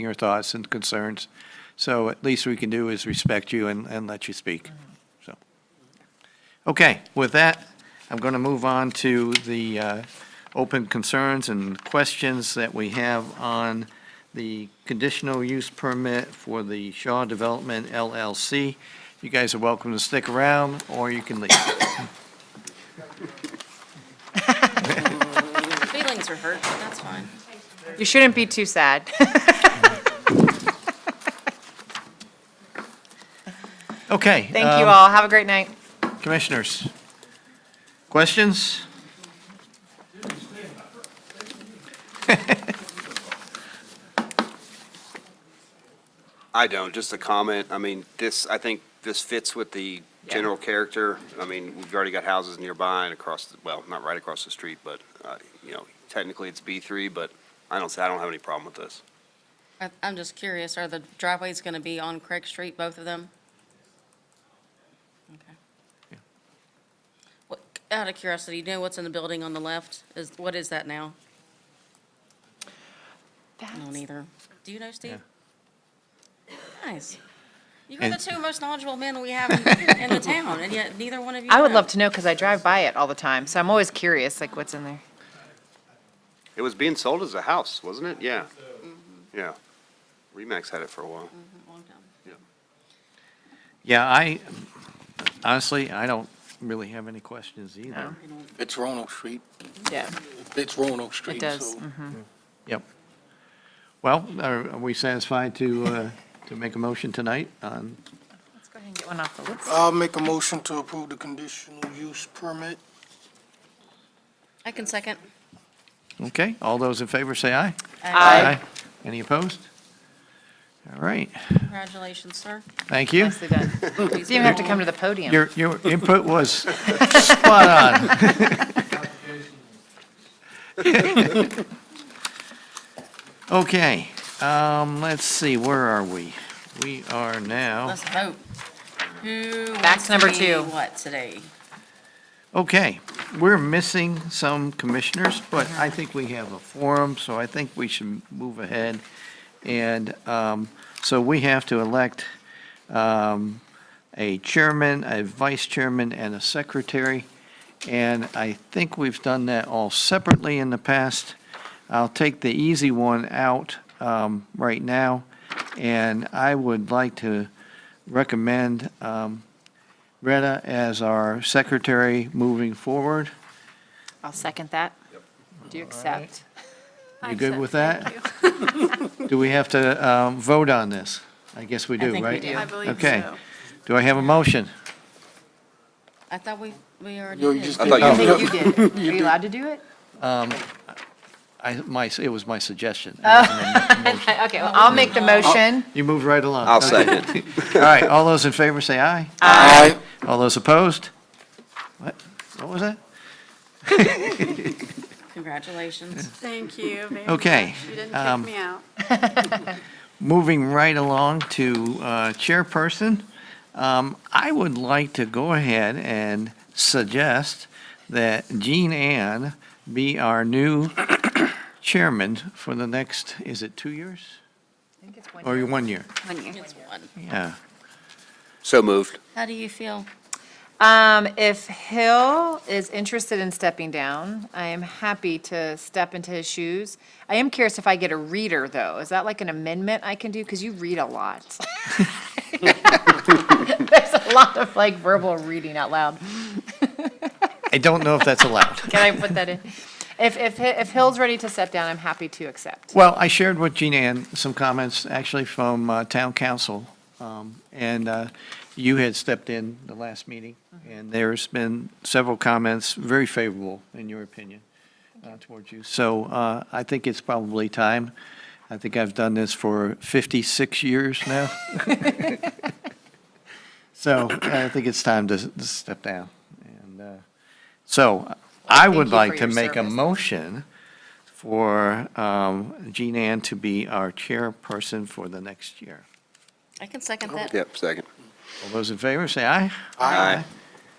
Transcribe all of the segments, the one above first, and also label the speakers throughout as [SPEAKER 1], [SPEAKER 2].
[SPEAKER 1] your thoughts and concerns. So at least we can do is respect you and, and let you speak, so. Okay, with that, I'm going to move on to the uh, open concerns and questions that we have on the conditional use permit for the Shaw Development LLC. You guys are welcome to stick around, or you can leave.
[SPEAKER 2] Feelings are hurt, but that's fine.
[SPEAKER 3] You shouldn't be too sad.
[SPEAKER 1] Okay.
[SPEAKER 3] Thank you
[SPEAKER 1] um,
[SPEAKER 3] all. Have a great night.
[SPEAKER 1] Commissioners, questions?
[SPEAKER 4] I don't, just a comment. I mean, this, I think this fits with the general character. I mean, we've already got houses nearby and across, the- well, not right across the street, but, uh, you know, technically it's B3, but I don't, I don't have any problem with this.
[SPEAKER 2] I- I'm just curious, are the driveways going to be on Craig Street, both of them? Okay. What- Out of curiosity, do you know what's in the building on the left? Is, what is that now? I don't either. Do you know, Steve? Nice. You're the
[SPEAKER 1] And-
[SPEAKER 2] two most knowledgeable men we have in- in the town, and yet neither one of you
[SPEAKER 3] I would
[SPEAKER 2] know.
[SPEAKER 3] love to know because I drive by it all the time, so I'm always curious, like what's in there.
[SPEAKER 4] It was being sold as a house, wasn't it? Yeah. Yeah. Remax had it for a while.
[SPEAKER 2] Long time.
[SPEAKER 1] Yeah, I, honestly, I don't really have any questions either.
[SPEAKER 5] It's Roanoke Street.
[SPEAKER 3] Yeah.
[SPEAKER 5] It's Roanoke Street.
[SPEAKER 3] It does.
[SPEAKER 5] so-
[SPEAKER 3] Mhm.
[SPEAKER 1] Yep. Well, are are we satisfied to, uh, to make a motion tonight on,
[SPEAKER 3] Let's go ahead and get one off the list.
[SPEAKER 5] I'll make a motion to approve the conditional use permit.
[SPEAKER 2] I can second.
[SPEAKER 1] okay? All those in favor say aye.
[SPEAKER 3] Aye.
[SPEAKER 1] Any opposed? All right,
[SPEAKER 2] Congratulations, sir.
[SPEAKER 1] thank you.
[SPEAKER 3] Nicely done. You
[SPEAKER 2] Please
[SPEAKER 3] don't even have to come to the podium.
[SPEAKER 1] Your, your input was spot on. Okay, um, let's see, where are we? We are now,
[SPEAKER 2] Let's vote. Who
[SPEAKER 3] Back
[SPEAKER 2] wants
[SPEAKER 3] to number
[SPEAKER 2] to be
[SPEAKER 3] two.
[SPEAKER 2] what today?
[SPEAKER 1] okay, we're missing some commissioners, but I think we have a forum, so I think we should move ahead. And, um, so we have to elect, um, a chairman, a vice chairman, and a secretary. And I think we've done that all separately in the past. I'll take the easy one out um, right now, and I would like to recommend um, Retta as our secretary moving forward.
[SPEAKER 3] I'll second that. Do you accept?
[SPEAKER 1] You good with that? Do we have to um, vote on this? I guess we do,
[SPEAKER 2] think
[SPEAKER 1] right?
[SPEAKER 2] we do. I
[SPEAKER 6] believe
[SPEAKER 1] Okay.
[SPEAKER 6] so.
[SPEAKER 1] Do I have a motion?
[SPEAKER 2] I thought we, we already
[SPEAKER 5] Yo, you
[SPEAKER 2] did.
[SPEAKER 5] just
[SPEAKER 4] I
[SPEAKER 5] did.
[SPEAKER 4] thought you
[SPEAKER 3] I think you did. it. Are you allowed to do it?
[SPEAKER 1] I, my, it was my suggestion. It
[SPEAKER 2] Oh.
[SPEAKER 1] wasn't a motion.
[SPEAKER 3] Okay, well, I'll make the motion.
[SPEAKER 1] You moved right along.
[SPEAKER 4] I'll second.
[SPEAKER 1] All right, all those in favor say aye.
[SPEAKER 5] Aye.
[SPEAKER 1] All those opposed? What, what was that?
[SPEAKER 2] Congratulations.
[SPEAKER 6] Thank you very much.
[SPEAKER 1] Okay,
[SPEAKER 6] You didn't
[SPEAKER 1] um,
[SPEAKER 6] kick me out.
[SPEAKER 1] moving right along to uh, chairperson. Um, I would like to go ahead and suggest that Jean Ann be our new chairman for the next, is it two years?
[SPEAKER 3] I think it's
[SPEAKER 1] Or
[SPEAKER 3] one.
[SPEAKER 1] one year?
[SPEAKER 2] It's one.
[SPEAKER 1] Yeah.
[SPEAKER 4] So moved.
[SPEAKER 2] How do you feel?
[SPEAKER 3] Um, if Hill is interested in stepping down, I am happy to step into his shoes. I am curious if I get a reader, though. Is that like an amendment I can do? Because you read a lot. There's a lot of like verbal reading out loud.
[SPEAKER 1] I don't know if that's allowed.
[SPEAKER 3] Can I put that in? If, if, Hi- if Hill's ready to step down, I'm happy to accept.
[SPEAKER 1] Well, I shared with Jean Ann some comments, actually from uh, town council, um, and uh, you had stepped in the last meeting,
[SPEAKER 3] Mm-hmm.
[SPEAKER 1] and there's been several comments, very favorable in your opinion, uh, towards you. So uh, I think it's probably time. I think I've done this for 56 years now. So I think it's time to to step down. And uh, so I
[SPEAKER 3] thank
[SPEAKER 1] would
[SPEAKER 3] you for
[SPEAKER 1] like to
[SPEAKER 3] your
[SPEAKER 1] make a
[SPEAKER 3] service.
[SPEAKER 1] motion for um, Jean Ann to be our chairperson for the next year.
[SPEAKER 2] I can second that.
[SPEAKER 4] Yep, second.
[SPEAKER 1] All those in favor, say aye.
[SPEAKER 4] Aye.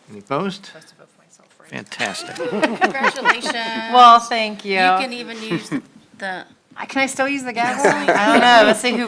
[SPEAKER 1] Any opposed?
[SPEAKER 3] Supposed to vote for myself, right?
[SPEAKER 1] Fantastic.
[SPEAKER 2] Congratulations.
[SPEAKER 3] Well, thank you.
[SPEAKER 2] You can even use the,
[SPEAKER 3] I- Can I still use the gavel? I don't know, let's see who